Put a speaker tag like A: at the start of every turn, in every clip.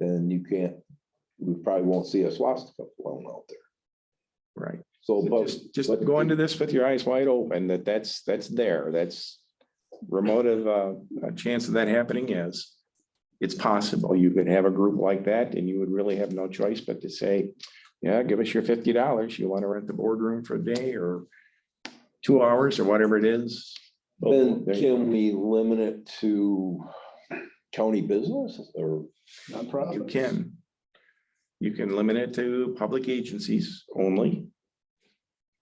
A: then you can't, we probably won't see a swastika flown out there.
B: Right.
A: So, but.
B: Just, just
A: but-
B: go into this with your eyes wide open, that that's, that's there, that's remote of uh, a chance of that happening is. It's possible you could have a group like that and you would really have no choice but to say, yeah, give us your fifty dollars. You want to rent the boardroom for a day or two hours or whatever it is.
A: Then
B: There you
A: can we limit it to county business or?
B: You
C: Nonprofit.
B: can. You can limit it to public agencies only.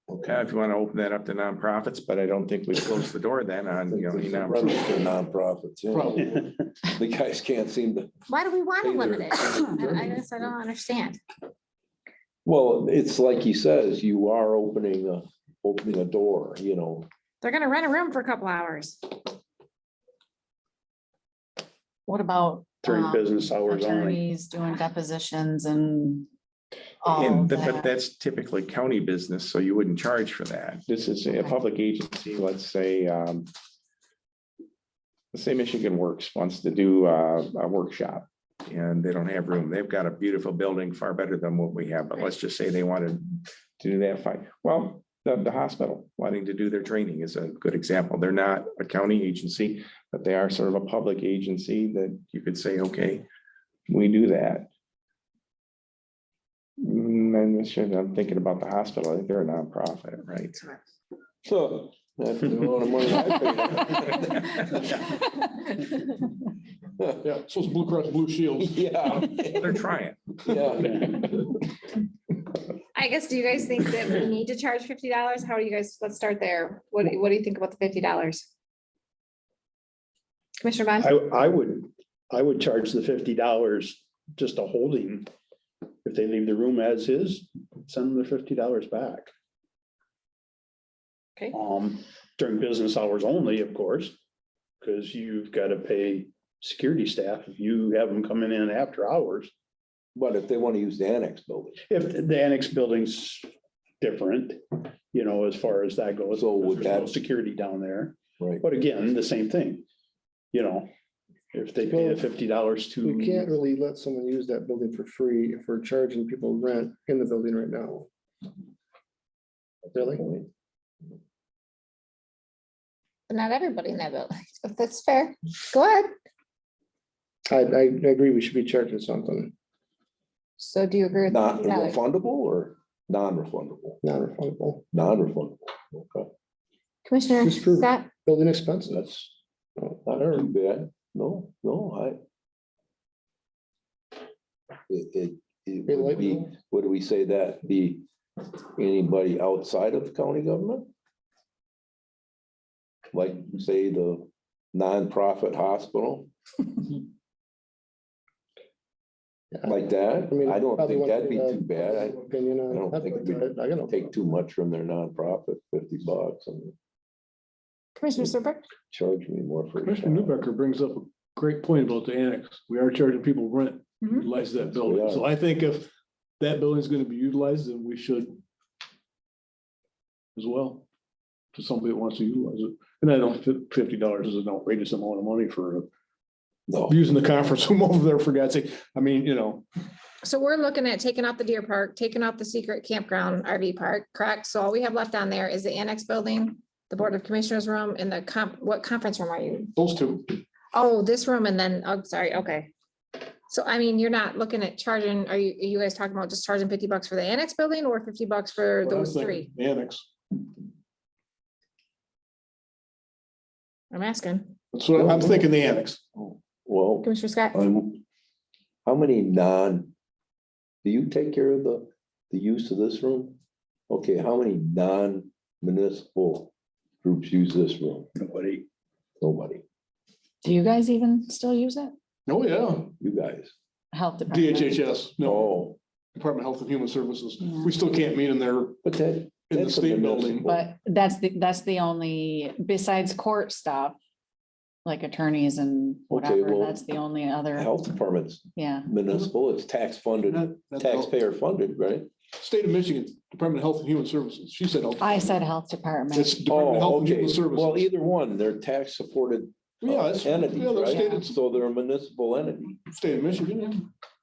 B: Okay, Uh, if you want to open that up to nonprofits, but I don't think we close the door then on, you know, any
A: Run
B: nonprofit.
A: it to Nonprofits, yeah.
C: Probably.
A: The guys can't seem to,
D: Why do we want to
A: Either.
D: limit it? I I guess I don't understand.
A: well, it's like he says, you are opening a, opening a door, you know.
D: They're gonna rent a room for a couple hours.
E: What about?
F: During
E: um,
F: business hours only.
E: Attorneys doing depositions and. all
B: And, th- but
E: that?
B: that's typically county business, so you wouldn't charge for that. This is a public agency, let's say, um. Let's say Michigan Works wants to do uh, a workshop and they don't have room. They've got a beautiful building, far better than what we have, but let's just say they wanted. To do that fine. Well, the, the hospital wanting to do their training is a good example. They're not a county agency, but they are sort of a public agency that you could say, okay. We do that. Mm, I'm not sure. I'm thinking about the hospital. I think They're a nonprofit, right?
A: So. that's the amount of money I
C: Yeah, so it's Blue Cross Blue
A: pay.
C: Shield.
A: Yeah,
B: They're trying.
A: yeah.
G: I guess, do you guys think that we need to charge fifty dollars? How do you guys, let's start there. What, do- what do you think about the fifty dollars? Commissioner Bond?
F: I, I would, I would charge the fifty dollars just a holding. If they leave the room as is, send them the fifty dollars back.
G: Okay.
F: Um, during business hours only, of course, because you've got to pay security staff if you have them coming in after hours.
A: But if they want to use the annex building,
F: If the annex building's different, you know, as far as that goes.
A: So would
F: there's no
A: that-
F: Security down there.
A: right?
F: But again, the same thing, you know, if they pay the fifty dollars to.
A: Mm.
H: We can't really let someone use that building for free if we're charging people rent in the building right now. Really?
D: But not everybody in that building. If that's fair, go ahead.
H: I, I agree, we should be charging something
D: So do you agree with?
A: Not
D: $50?
A: refundable or non-refundable?
H: non-refundable.
A: Non-refundable, okay.
D: Commissioner
H: Just prove it.
D: Scott,
H: Building expenses.
A: That's not too bad. No, no, I. It, it, it
H: They
A: would
H: like
A: be,
H: that.
A: what do we say that be anybody outside of county government? Like, say, the nonprofit hospital? Like that?
H: I mean,
A: I don't
H: probably
A: think
H: want to
A: that'd be
H: get a
A: too bad. I
H: Opinion
A: I
H: on.
A: don't
H: that,
A: think
H: but
A: we'd
H: I- I gotta-
A: take too much from their nonprofit, fifty bucks and
D: Commissioner Serbrook?
A: charge me more for. a
C: Commissioner
A: shot.
C: Newbecker brings up a great point about the annex. We are charging people rent,
G: Mm-hmm.
C: to
D: Mhm.
C: utilize that
A: We
C: building.
A: are.
C: So I think if that building is going to be utilized, then we should as well, to somebody that wants to utilize it. And I don't, thi- fifty dollars is an outrageous amount of money for
A: No,
C: using the conference room over there, for God's sake. I mean, you know,
G: So we're looking at taking out the deer park, taking out the secret campground RV park, correct? So all we have left on there is the annex building, the Board of Commissioners room and the comp, what conference room are you?
C: those two.
G: Oh, this room and then, oh, sorry, okay. So I mean, you're not looking at charging, are you, are you guys talking about just charging fifty bucks for the annex building or fifty bucks for
C: What I was
G: those three?
C: thinking, the Annex.
G: I'm asking.
C: That's what I'm thinking, the annex.
A: well.
G: Commissioner Scott?
A: Um, How many non, do you take care of the, the use of this room? Okay, how many non-municipal groups use this room?
F: Nobody.
A: Nobody,
E: Do you guys even still use it?
C: Oh, yeah.
A: you guys.
E: Health department?
C: DHHS, no,
A: Oh,
C: Department of Health and Human Services.
E: Yeah.
C: We still can't meet in there
A: but that.
C: in the
A: that's a
C: state building.
A: municipal.
E: But that's the, that's the only, besides court stuff, like attorneys and whatever,
A: well,
E: that's the only other,
A: Health department's
E: yeah.
A: municipal, it's tax funded,
C: Not- not the health-
A: taxpayer funded, right?
C: State of Michigan, Department of Health and Human Services. She said. health.
E: I said health department.
C: It's Department of Health
A: Oh,
C: and
A: okay,
C: Human
A: well,
C: Services.
A: either one, they're tax supported
C: Yeah, it's, yeah,
A: entities,
C: the
A: right?
C: state, it's
A: So they're a municipal entity.
C: state of Michigan. yeah.